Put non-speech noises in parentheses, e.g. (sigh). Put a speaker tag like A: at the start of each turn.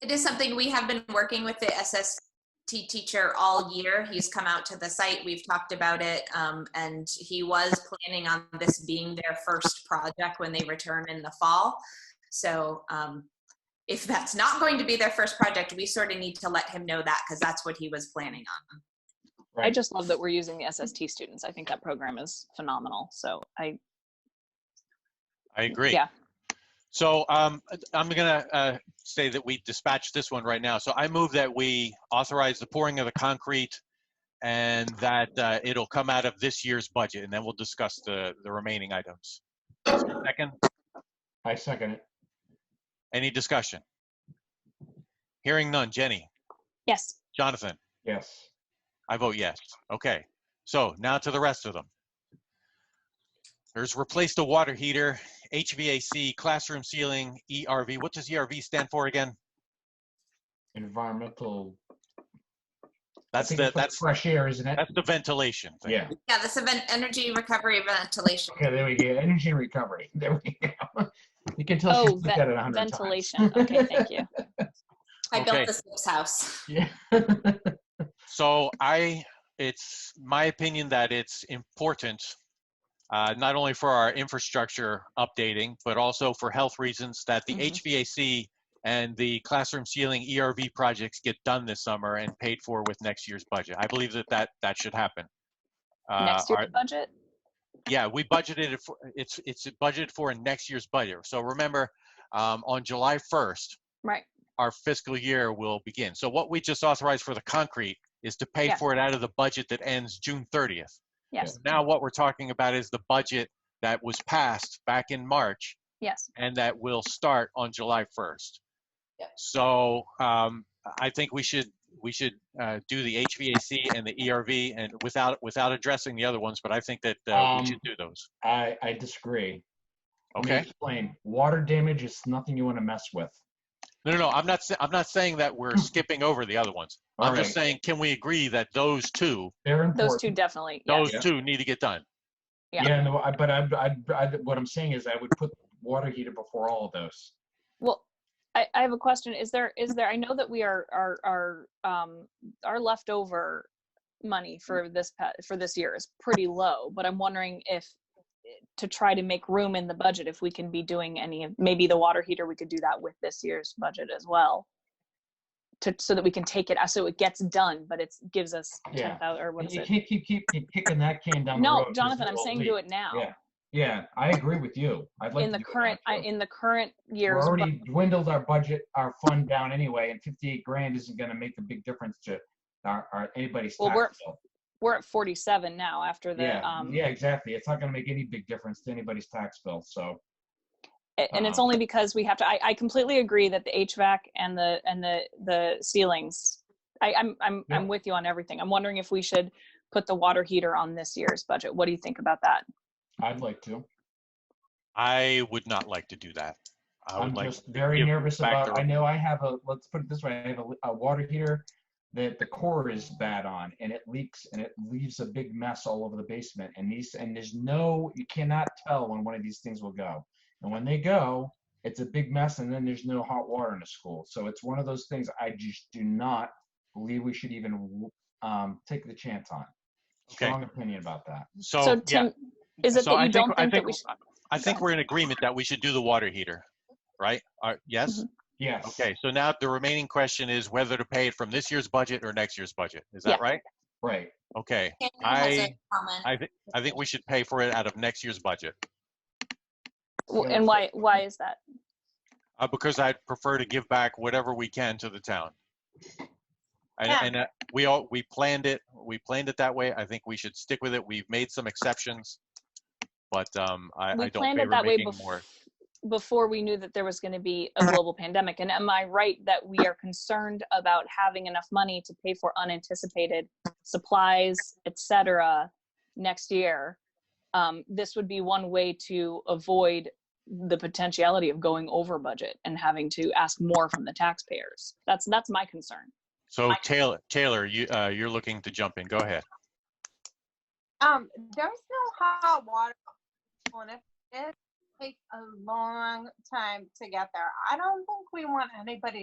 A: It is something we have been working with the SST teacher all year. He's come out to the site, we've talked about it, um, and he was planning on this being their first project when they return in the fall. So um, if that's not going to be their first project, we sort of need to let him know that because that's what he was planning on.
B: I just love that we're using the SST students. I think that program is phenomenal. So I,
C: I agree.
B: yeah,
C: So um, I'm going to say that we dispatch this one right now. So I move that we authorize the pouring of the concrete and that uh, it'll come out of this year's budget, and then we'll discuss the, the remaining items. Is there a Second,
D: I second it.
C: any discussion? Hearing none. Jenny?
B: yes,
C: Jonathan?
D: Yes.
C: I vote yes. Okay, so now to the rest of them. There's replace the water heater, HVAC, classroom ceiling, ERV. What does ERV stand for again?
D: Environmental. I
C: That's
D: think
C: the,
D: it's like
C: that's,
D: Fresh air, isn't it?
C: that's the ventilation thing.
D: Yeah.
A: Yeah, this event, energy recovery ventilation.
D: Okay, there we go. Energy recovery. (laughs) There we go. You can tell
B: Oh,
D: she's looked
B: ve-
D: at it a hundred times.
B: ventilation.
D: (laughs)
B: Okay, thank you.
A: I
C: Okay.
A: built this this house.
D: Yeah.
C: So I, it's my opinion that it's important, uh, not only for our infrastructure updating, but also for health reasons that the
B: Mhm.
C: HVAC and the classroom ceiling ERV projects get done this summer and paid for with next year's budget. I believe that that, that should happen. Uh,
B: Next
C: our-
B: year's budget,
C: yeah, we budgeted it for, it's, it's budgeted for in next year's budget. So remember, um, on July 1st,
B: right,
C: our fiscal year will begin. So what we just authorized for the concrete is to pay
B: Yeah.
C: for it out of the budget that ends June 30th.
B: yes,
C: Now what we're talking about is the budget that was passed back in March
B: yes,
C: and that will start on July 1st.
A: Yep.
C: So um, I think we should, we should uh, do the HVAC and the ERV and without, without addressing the other ones, but I think that uh,
D: Um,
C: we should do those.
D: I, I disagree. Let me
C: Okay?
D: Explain. Water damage is nothing you want to mess with.
C: No, no, no, I'm not, sa- I'm not saying that
D: (clears throat)
C: we're skipping over the other ones.
D: All
C: I'm just
D: right.
C: saying, can we agree that those two
D: They're
B: those two
D: important.
B: definitely, yes,
C: those two need to get done.
B: yeah.
D: Yeah, no, I, but I, I, I, what I'm saying is I would put water heater before all of those.
B: Well, I, I have a question. Is there, is there, I know that we are, are, are, um, our leftover money
D: Mm-hmm.
B: for this, pa- for this year is pretty low, but I'm wondering if, to try to make room in the budget, if we can be doing any, of maybe the water heater, we could do that with this year's budget as well. To, so that we can take it, out so it gets done, but it's, gives us
D: Yeah.
B: ten thousand, or what
D: And
B: is
D: you
B: it?
D: can't keep, keep, keep kicking that can down the road.
B: No,
D: 'cause
B: Jonathan, I'm
D: it'll
B: saying
D: leak.
B: do it now.
D: Yeah. Yeah, I agree with you. I'd like
B: In
D: to
B: the
D: do it
B: current,
D: now,
B: I-
D: too.
B: in the current
D: We're
B: year's,
D: already
B: bu-
D: dwindled our budget, our fund down anyway, and 58 grand isn't going to make a big difference to our, our anybody's
B: Well,
D: tax
B: we're-
D: bill.
B: we're at forty-seven now after the,
D: Yeah,
B: um,
D: yeah, exactly. It's not going to make any big difference to anybody's tax bill, so.
B: A- and it's
D: Uh-huh.
B: only because we have to I, I completely agree that the hvac and the and the the ceilings I, i'm i'm
D: Yeah.
B: i'm with you on everything i'm wondering if we should put the water heater on this year's budget what do you think about that
D: I'd like to.
C: I would not like to do that. I would
D: I'm
C: like,
D: just very
C: give
D: nervous
C: back
D: about,
C: the-
D: I know I have a, let's put it this way, I have a, a water heater that the core is bad on and it leaks and it leaves a big mess all over the basement and these, and there's no, you cannot tell when one of these things will go. And when they go, it's a big mess and then there's no hot water in the school. So it's one of those things I just do not believe we should even, um, take the chance on.
C: Okay.
D: Strong opinion about that.
B: so
C: so, yeah.
B: tim is it
C: So
B: that you
C: I
B: don't
C: I
B: think that we should
C: I think we're in agreement that we should do the water heater, right? Are- Yes?
B: Mm-hmm.
D: Yes.
C: Okay, so now the remaining question is whether to pay it from this year's budget or next year's budget. Is that
B: Yeah.
C: right?
D: Right.
C: Okay,
A: Kim has a
C: I-
A: comment.
C: I think, I think we should pay for it out of next year's budget,
B: w- and why why is that
C: uh, because I prefer to give back whatever we can to the town. And,
A: Yeah.
C: and uh, we all, we planned it, we planned it that way. I think we should stick with it. We've made some exceptions, but um, I,
B: we
C: I don't
B: planned it
C: favor
B: that way
C: making more.
B: before before we knew that there was going to be a global pandemic and am i right that we are concerned about having enough money to pay for unanticipated supplies etc next year um, this would be one way to avoid the potentiality of going over budget and having to ask more from the taxpayers that's that's my concern
C: So Taylor, Taylor, you, uh, you're looking to jump in. Go ahead.
E: Um, there's no hot water on it. It takes a long time to get there. I don't think we want anybody